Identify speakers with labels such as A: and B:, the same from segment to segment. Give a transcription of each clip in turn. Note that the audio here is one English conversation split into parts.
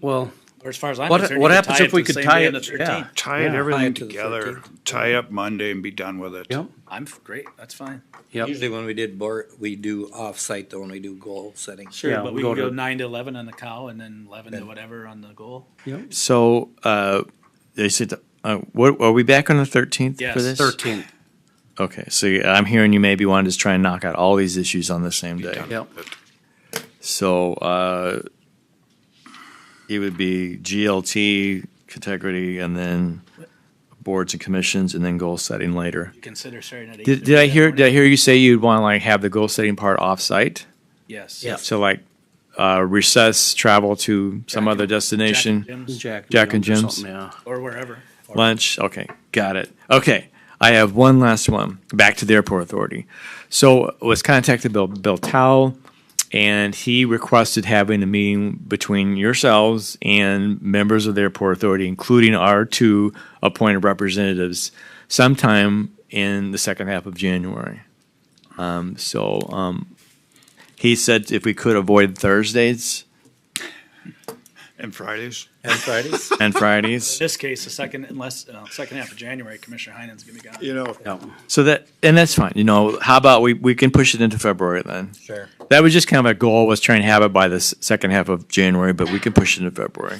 A: Well,
B: Or as far as I'm
A: What-
B: concerned,
A: what
B: you
A: happens
B: tie
A: if
B: it
A: we
B: to
A: could
B: the same
A: tie
B: day
A: it-
B: on the
A: yeah.
B: 13th.
C: Tying
A: Yeah, tie
C: everything
A: it to the
C: together,
A: 13th.
C: tie up Monday and be done with it.
A: yep,
B: I'm f- great. That's fine.
A: yep.
D: Usually when we did board, we do off-site though, when we do goal setting.
B: Sure,
A: Yeah,
B: but
A: we
B: we
A: go
B: can go
A: to-
B: nine to eleven on the cow, and then eleven to whatever on the goal.
E: So uh, they said, uh, what, are we back on the 13th
B: Yes.
E: for this?
A: Thirteen,
E: Okay, so you- I'm hearing you maybe want to just try and knock out all these issues on the same day.
A: yep.
E: So uh, it would be GLT, integrity, and then boards and commissions, and then goal setting later.
B: You consider starting at eight.
E: Did, did I hear? Did I hear you say you'd want to like have the goal setting part off-site?
B: Yes.
A: Yeah.
E: So like uh, recess, travel to some
B: Jack
E: other
B: and-
E: destination,
B: Jack and Jim's
A: Jack.
E: Jack and
A: Jones or
E: Jim's.
A: something, Yeah.
B: or wherever.
E: lunch. Okay, got it. Okay, I have one last one. Back to the airport authority. So was contacted Bill Bill Towle, and he requested having a meeting between yourselves and members of the airport authority, including our two appointed representatives, sometime in the second half of January. Um, so um, he said if we could avoid Thursdays
C: And Fridays,
D: And Fridays?
E: and Fridays.
B: This case, the second unless uh, second half of January, Commissioner Heinen's gonna be gone.
C: you know,
A: Yep.
E: So that and that's fine. You know, how about we we can push it into February then?
D: Sure.
E: That was just kind of a goal was trying to have it by the s- second half of January, but we can push it into February.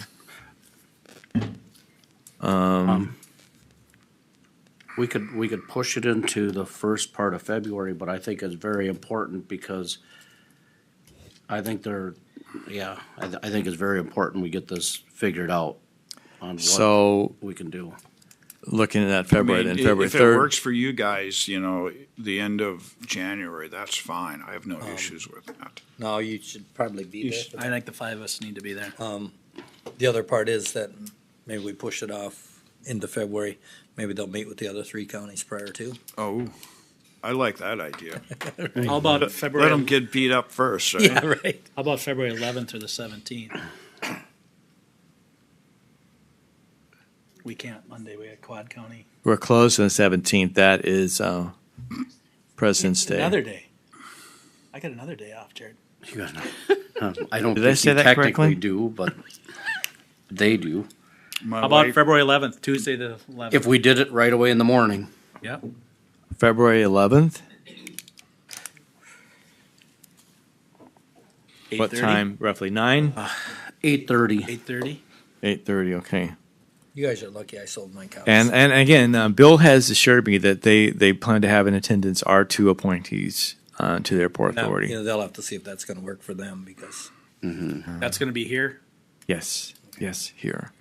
A: We could, we could push it into the first part of February, but I think it's very important because I think they're, yeah, I, th- I think it's very important we get this figured out on what
E: So
A: we can do.
E: looking at that
C: I
E: February
C: mean, i-
E: then February
C: if it
E: third.
C: works for you guys, you know, the end of January, that's fine. I have no issues with that.
D: No, you should probably be there. for
B: I think the five of us need to be there.
D: that. The other part is that maybe we push it off into February. Maybe they'll meet with the other three counties prior to.
C: Oh, I like that idea.
B: How about
C: Let them
B: February?
C: get beat up first. right?
D: right.
B: How about February eleventh or the seventeenth? We can't Monday. We got Quad County.
E: We're closed on the seventeenth. That is uh, President's Day.
B: Another day. I got another day off, Jared.
A: You got no- Um, I don't
E: Did I
A: think
E: say
A: you
E: that
A: technically
E: correctly?
A: do, but they do.
C: My
B: How about
C: wife-
B: February eleventh, Tuesday the eleventh?
A: If we did it right away in the morning,
B: Yep.
E: February eleventh. What
B: 8:30?
E: time? Roughly nine,
C: Uh-huh.
A: eight thirty,
B: Eight thirty.
E: eight thirty. Okay.
D: You guys are lucky I sold my cows.
E: And and again, uh, Bill has assured me that they they plan to have in attendance our two appointees uh, to their port
D: Now,
E: authority.
D: You know, they'll have to see if that's gonna work for them because
B: That's gonna be here.
E: Yes, yes, here.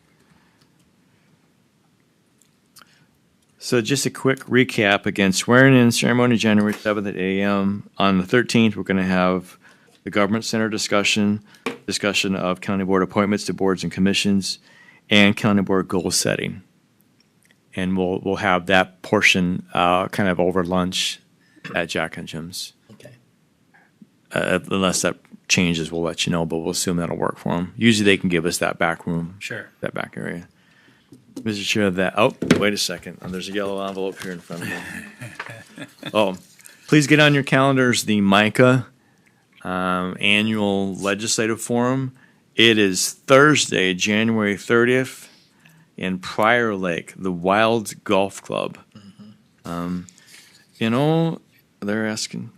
E: So just a quick recap again: swearing in ceremony January seventh at eight a.m. On the thirteenth, we're going to have the government center discussion, discussion of county board appointments to boards and commissions, and county board goal setting. And we'll we'll have that portion uh, kind of over lunch at Jack and Jim's.
D: Okay.
E: Uh, unless that changes, we'll let you know, but we'll assume that'll work for them. Usually, they can give us that back room
B: Sure.
E: that back area. Mr. Chair, that, oh, wait a second. Oh, There's a yellow envelope here in front of me. Oh, please get on your calendars, the MICA um, Annual Legislative Forum. It is Thursday, January 30th in Prior Lake, the Wild Golf Club. Um, You know, they're asking,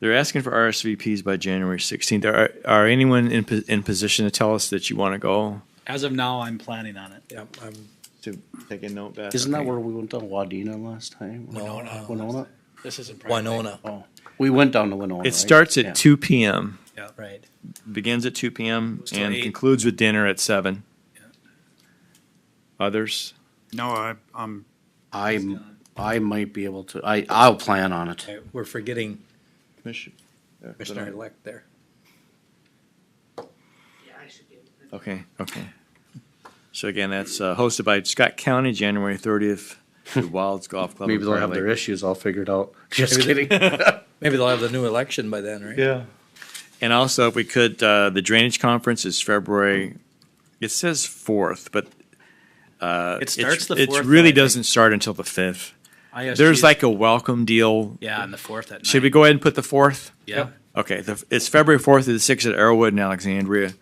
E: they're asking for RSVPs by January 16th. Are, are anyone in, po- in position to tell us that you want to go?
B: As of now, I'm planning on it.
D: Yeah, I'm,
E: to take a note back.
A: isn't that where we went down Wadena last time?
D: Winona.
A: Winona?
B: This isn't. private.
D: Winona,
A: Oh, we went down to Winona.
E: It starts at two PM,
D: right.
E: begins at two PM
B: Goes till
E: and
B: eight.
E: concludes with dinner at seven. Others?
C: No, I, I'm,
A: I, I might be able to, I, I'll plan on it.
D: Okay, We're forgetting
E: uh, Okay,
D: Commissioner-elect there.
E: okay. So again, that's uh, hosted by Scott County, January thirtieth, the Wilds Golf Club. in
A: Maybe they'll
E: Prior
A: have their
E: Lake.
A: issues all figured out. Just kidding.
D: Maybe they'll have the new election by then, right?
A: Yeah.
E: And also, if we could, uh, the Drainage Conference is February, it says fourth, but uh,
B: It starts
E: it's,
B: the
E: it
B: fourth.
E: really doesn't start until the fifth. There's like a welcome deal.
B: yeah, on the fourth at night.
E: Should we go ahead and put the fourth?
B: Yeah.
E: Okay, the, it's February fourth to the sixth at Arrowwood in Alexandria.